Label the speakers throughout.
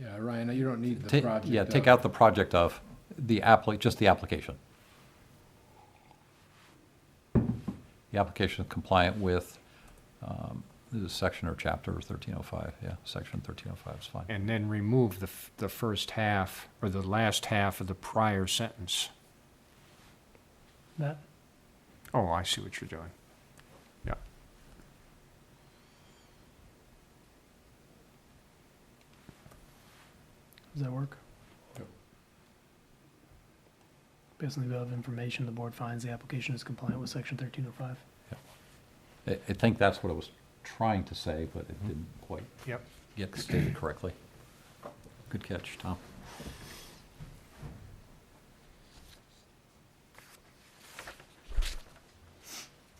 Speaker 1: Yeah, Ryan, you don't need the
Speaker 2: Ta-
Speaker 1: project.
Speaker 2: Yeah, take
Speaker 1: up.
Speaker 2: out the project of, the appli, just the application. The application is compliant with, um, this is section or chapter 1305, yeah, section 1305 is fine.
Speaker 3: And then remove the, f- the first half, or the last half of the prior sentence.
Speaker 4: That,
Speaker 3: Oh, I see what you're doing. Yeah.
Speaker 4: does that work?
Speaker 1: Yep.
Speaker 4: Basically, we have information, the board finds the application is compliant with section thirteen oh five.
Speaker 2: I, I think that's what I was trying to say, but
Speaker 1: Mm-hmm.
Speaker 2: it didn't quite
Speaker 3: Yep.
Speaker 2: get stated correctly. Good catch, Tom.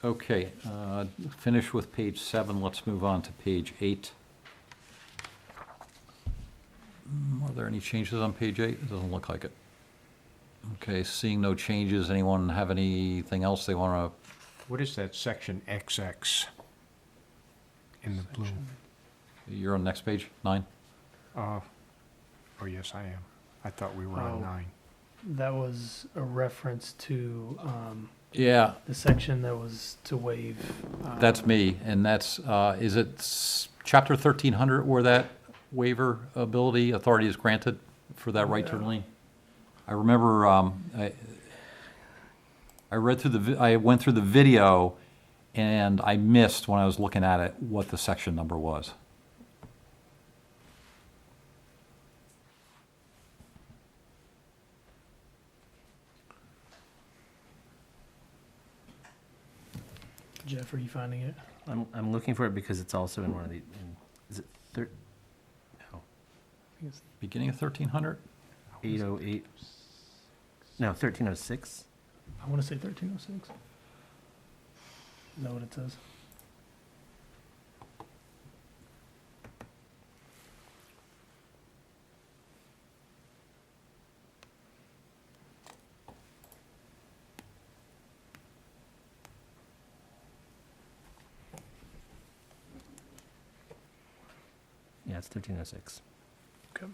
Speaker 2: Okay, uh, finish with page seven, let's move on to page eight. Mm, Are there any changes on page eight? It doesn't look like it. Okay, seeing no changes, anyone have anything else they want to
Speaker 3: What is that section XX in the blue?
Speaker 2: You're on next page, nine?
Speaker 3: Uh, Oh, yes, I am. I thought we were
Speaker 4: Oh.
Speaker 3: on nine.
Speaker 4: That was a reference to, um,
Speaker 2: Yeah,
Speaker 4: the section that was to waive. uh,
Speaker 2: that's me, and that's, uh, is it s- chapter thirteen hundred where that waiver ability authority is granted for that right turn lane? I remember, um, I, I read through the, vi- I went through the video, and I missed when I was looking at it what the section number was.
Speaker 4: Jeff, are you finding it?
Speaker 5: I'm, I'm looking for it because it's also in one of the, in- is it thir, no,
Speaker 4: I think it's-
Speaker 2: Beginning of thirteen hundred?
Speaker 5: eight oh eight? No, thirteen oh six?
Speaker 4: I wanna say thirteen oh six. Is that what it says?
Speaker 5: Yeah, it's thirteen oh six.
Speaker 4: Okay.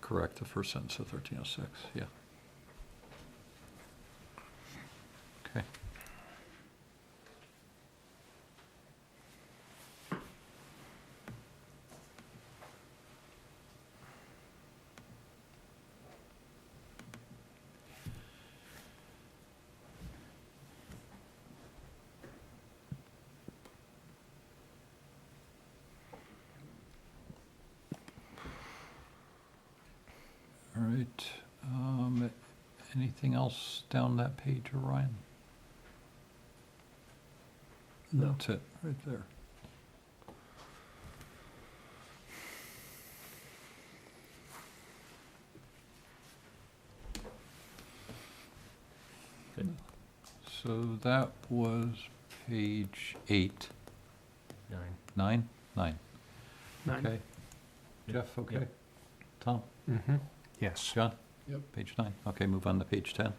Speaker 2: Correct, the first sentence of thirteen oh six, yeah. Okay. All right, um, anything else down that page, Orion?
Speaker 4: No.
Speaker 2: That's it, right there.
Speaker 5: Good.
Speaker 2: So that was page eight,
Speaker 5: Nine.
Speaker 2: nine, nine,
Speaker 4: Nine.
Speaker 2: okay? Jeff, okay?
Speaker 5: Yep.
Speaker 2: Tom,
Speaker 3: Mm-hmm. Yes.
Speaker 2: John?
Speaker 1: Yep.
Speaker 2: Page nine, okay, move on to page ten.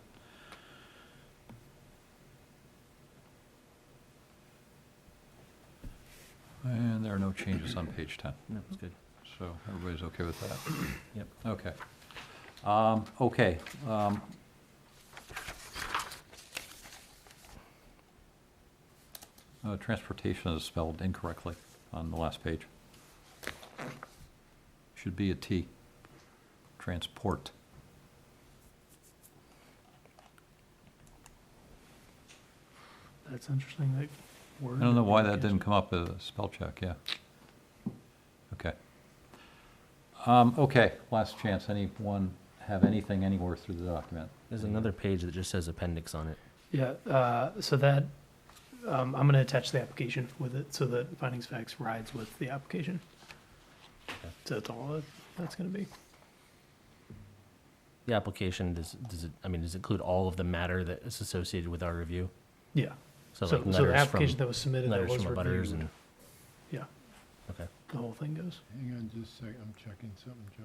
Speaker 2: And there are no changes on page ten.
Speaker 5: No, it's good.
Speaker 2: So everybody's okay with that?
Speaker 5: Yep.
Speaker 2: Okay. Um, Okay. um, uh, Transportation is spelled incorrectly on the last page. Should be a T. Transport.
Speaker 4: That's interesting, that word.
Speaker 2: I don't know why that didn't come up as a spell check, yeah. Okay. Um, Okay, last chance. Anyone have anything anywhere through the document?
Speaker 5: There's another page that just says appendix on it.
Speaker 4: Yeah, uh, so that, um, I'm gonna attach the application with it, so that findings facts rides with the application. So that's all that- that's gonna be.
Speaker 5: The application, does, does it, I mean, does it include all of the matter that is associated with our review?
Speaker 4: Yeah,
Speaker 5: So
Speaker 4: so,
Speaker 5: like
Speaker 4: so the
Speaker 5: letters from,
Speaker 4: application that was submitted, that
Speaker 5: letters
Speaker 4: was
Speaker 5: from abutters
Speaker 4: reviewed,
Speaker 5: and,
Speaker 4: yeah,
Speaker 5: okay.
Speaker 4: the whole thing goes.
Speaker 1: Hang on just a sec, I'm checking something, Joe.